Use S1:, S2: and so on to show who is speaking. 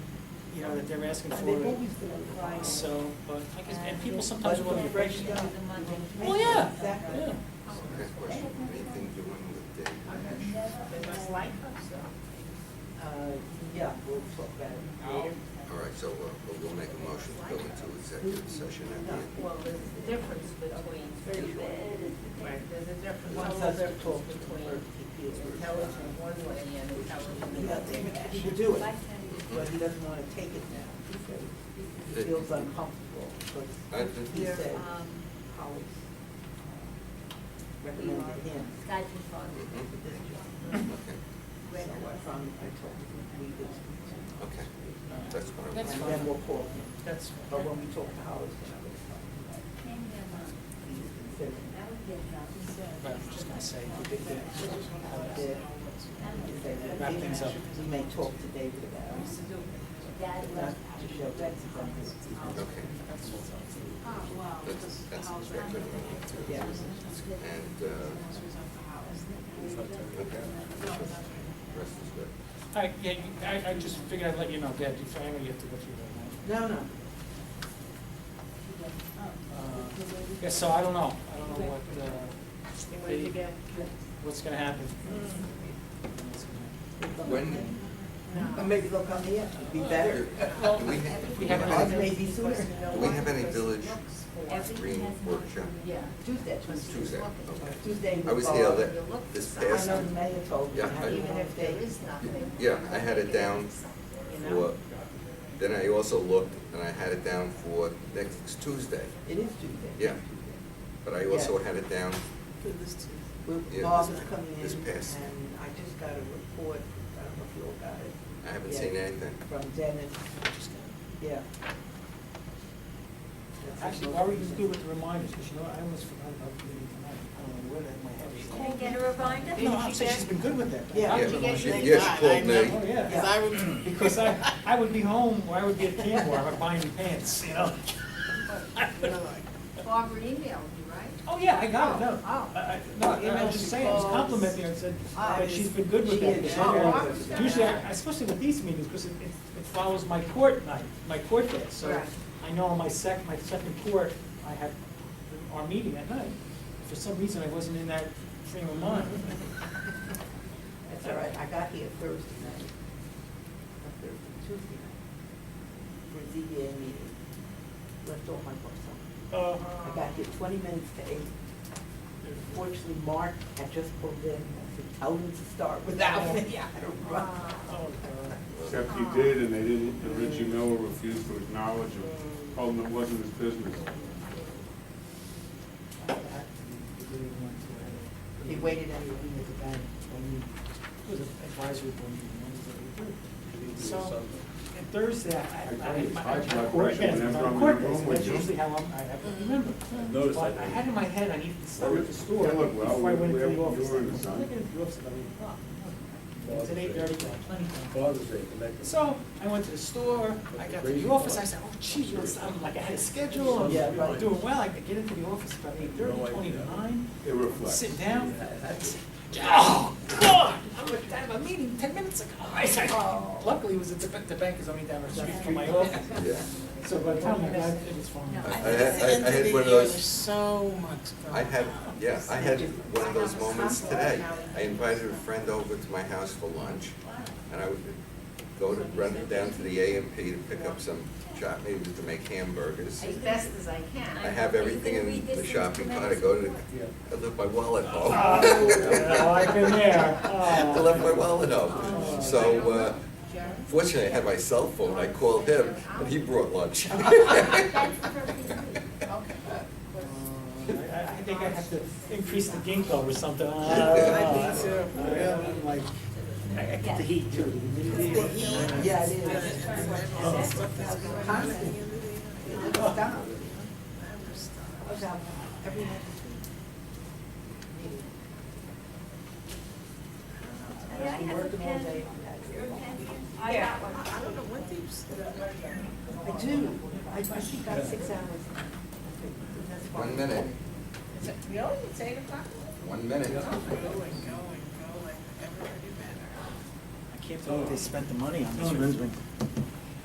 S1: you know, that they're asking
S2: They've
S1: for.
S2: always been on Friday.
S1: So, but I guess, and people sometimes
S2: But
S1: want to
S2: it
S1: be
S2: breaks
S1: patient.
S2: down.
S1: Well, yeah,
S2: Exactly.
S1: yeah.
S3: Next question, anything doing with Dave Nash?
S2: Uh, yeah, we'll talk about it later.
S3: All right, so uh, we'll- we'll make a motion to go into executive session at the end.
S4: Well, there's a difference between stupid, there's a difference,
S2: One
S4: there's a
S2: says to talk
S4: difference
S2: to
S4: between
S2: her TP.
S4: intelligent one way and
S2: He
S4: intelligent
S2: doesn't,
S4: the other.
S2: he will do it, but he doesn't wanna take it now. He feels uncomfortable,
S3: Uh, I
S2: because
S3: think-
S2: he said
S5: Um,
S2: colleagues uh, recommended him
S5: Guys from Florida.
S3: Mhm.
S2: for this job.
S3: Okay,
S2: So I found, I told him we did speak
S3: okay, that's what I
S2: to
S1: That's
S2: him.
S3: want.
S2: And then we'll call him.
S1: That's
S2: But when we talk to Howard, then I will talk to him. He's considering
S5: That would be a job.
S1: But I'm just gonna say,
S2: the big thing.
S1: uh,
S2: If they-
S1: Wrap things up.
S2: We may talk to David about it.
S5: Dad
S2: Not
S5: was.
S2: to show that something.
S3: Okay, that's, that's what I want to do.
S2: Yeah.
S3: And, uh, okay, rest is good.
S1: I, yeah, you- I, I just figured I'd let you know, Dad, if I ever have to go through that.
S2: No, no.
S1: Uh, Yeah, so I don't know, I don't know what, uh, the- what's gonna happen. What's gonna happen.
S3: When,
S2: Or maybe they'll come here, it'd be better.
S1: Well,
S3: do we have, do
S1: we
S3: we
S1: have
S3: have
S2: Ours
S3: any,
S2: may be sooner.
S3: do we have any village
S5: Everything
S3: green
S5: has no.
S3: workshop?
S4: Yeah.
S2: Tuesday.
S3: Tuesday, okay.
S2: Tuesday.
S3: I was
S2: we'll
S3: here
S2: go.
S3: that, this past,
S2: I know the mayor told me.
S3: Yeah,
S2: I had a
S3: I-
S4: Even
S2: long
S4: if there
S2: day.
S4: is nothing.
S3: yeah, I had it down for, then I also looked, and I had it down for next Tuesday,
S2: It is Tuesday.
S3: Yeah. but I also had it down,
S2: With
S3: Yeah,
S2: Bob
S3: this-
S2: is coming in,
S3: this past.
S2: and I just got a report, I don't know if you all got it.
S3: I haven't
S2: Yeah.
S3: seen anything.
S2: From Dennis, yeah. That's
S1: Actually,
S2: his
S1: why were you
S2: motivation.
S1: good with the reminders, because you know, I almost forgot about the meeting tonight, I don't know where that my head
S5: Can I
S1: is.
S5: get a reminder?
S1: No, I'm saying she's been good with that. I
S2: Yeah.
S3: Yeah,
S1: was
S3: she-
S1: reminded.
S3: yeah, she
S1: Oh,
S3: called me.
S1: yeah.
S2: Yeah.
S6: I would,
S1: Because I, I would be home, or I would be at Camp War, I'm buying me pants, you know?
S5: Barbara emailed you, right?
S1: Oh, yeah, I got it, no.
S5: Oh.
S1: I- I- No, I was just saying, I was complimenting her, and said,
S2: Ah,
S1: that she's been good with
S2: she
S1: that.
S2: is.
S1: Usually- Usually, I- especially with these meetings, because it, it it follows my court night, my court day, so
S5: Right.
S1: I know on my sec, my second court, I have our meeting at night. For some reason, I wasn't in that frame of mind.
S2: That's all right, I got here Thursday night, not Thursday, Tuesday night, for a ZBA meeting, left all my books on.
S1: Uh,
S2: I got here twenty minutes to eight. Fortunately, Mark had just pulled in, I said, tell him to start without me, I don't run.
S1: oh, God.
S7: Except he did, and they didn't, and Richie Miller refused to acknowledge him, told him it wasn't his business.
S1: I really want to, uh,
S2: He waited until we had the band, when you,
S1: It was an advisory board meeting, Wednesday. So, and Thursday, I, I, I,
S7: It's high
S1: my
S7: blood
S1: court,
S7: pressure
S1: yes,
S7: whenever
S1: my
S7: I'm
S1: court
S7: in
S1: is,
S7: a room
S1: that's
S7: with you.
S1: usually how I'm, I have to remember.
S6: Noticed
S1: But
S6: that.
S1: I had in my head, I need to stop at the store
S7: Yeah, look, well,
S1: before I went to
S7: we-
S1: the
S7: we-
S1: office.
S7: you were in the
S1: I was
S7: sun.
S1: looking at the office about eight o'clock. It's at eight thirty, I have plenty of time.
S6: Father's Day, connected.
S1: So, I went to the store, I got to the office, I said, oh geez, what's, I'm like, I had a schedule,
S2: Yeah,
S1: I'm
S2: right.
S1: doing well, I could get into the office about eight thirty,
S6: No idea.
S1: twenty to nine.
S7: It reflects.
S1: Sit down. Oh, God, I was out of a meeting ten minutes ago. I said, Luckily, it was at the, the bank is only down the street from my office.
S3: Yeah.
S1: So by the time I got, it was fine.
S3: I, I
S1: I
S3: had, I- I had one of
S6: There's
S3: those,
S6: so much going
S3: I had, yeah, I had one of those moments today.
S5: Wow.
S3: I invited a friend over to my house for lunch, and I would go to, run down to the AMP to pick up some chopped meat to make hamburgers.
S4: As best as I can.
S3: I have everything in the shopping cart, I go to, I left my wallet home.
S1: I've been there.
S3: I left my wallet home. So, uh, fortunately, I had my cell phone, I called him, and he brought lunch.
S5: That's the first thing.
S1: Uh, I, I think I have to increase the ginkgo or something. Ah, I
S3: I
S1: don't know. I'm Uh, Like, I I get the heat too, the humidity.
S2: yeah, it is. Constant. It didn't stop. I was out every night this week. Meeting.
S5: May I
S2: I've been
S5: have a
S2: working all
S5: pen?
S2: day on that.
S5: Your pen? I got one.
S2: I do, I, I think I got six hours. That's fine.
S3: One minute,
S4: Really? It's eight o'clock?
S3: one minute.
S1: I can't believe they spent the money on this.